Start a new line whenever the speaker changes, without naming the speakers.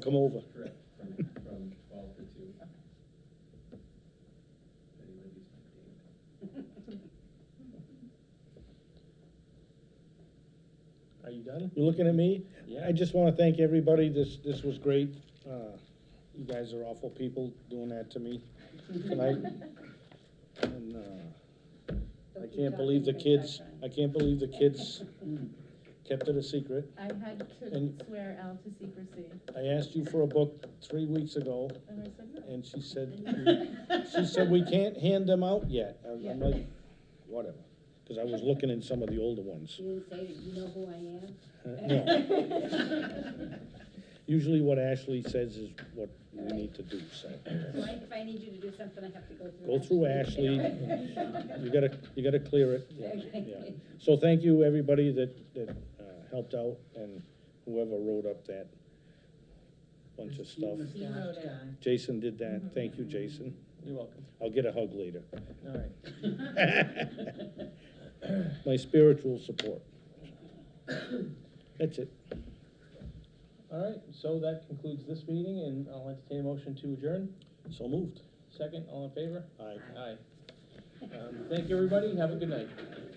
come over.
Correct, from, from twelve to two. Anybody use my date?
Are you done?
You're looking at me?
Yeah.
I just want to thank everybody. This, this was great. Uh, You guys are awful people doing that to me tonight. And uh, I
Don't keep
can't believe the
talking, don't
kids,
backtrack.
I can't believe the kids kept it a secret.
I had
And-
to swear Al to secrecy,
I asked you for a book three weeks ago,
and I said no.
and she said, she said, we can't hand them out yet. I'm I'm like, whatever, because I was looking in some of the older ones.
You didn't say, that you know who I
Uh, No. Usually what Ashley says is what we need to do, so.
am? So I, if I need you to do something, I have to go through.
Go through Ashley, you gotta, you gotta clear it. Yeah,
Okay.
yeah. So thank you, everybody that, that uh, helped out, and whoever wrote up that bunch of stuff.
He wrote it.
Jason did that, thank you, Jason.
You're welcome.
I'll get a hug later.
All right.
My spiritual support. That's it.
All right, so that concludes this meeting, and I'll entertain a motion to adjourn.
So moved.
Second, all in favor?
Aye.
Aye. Um, Thank you, everybody. Have a good night.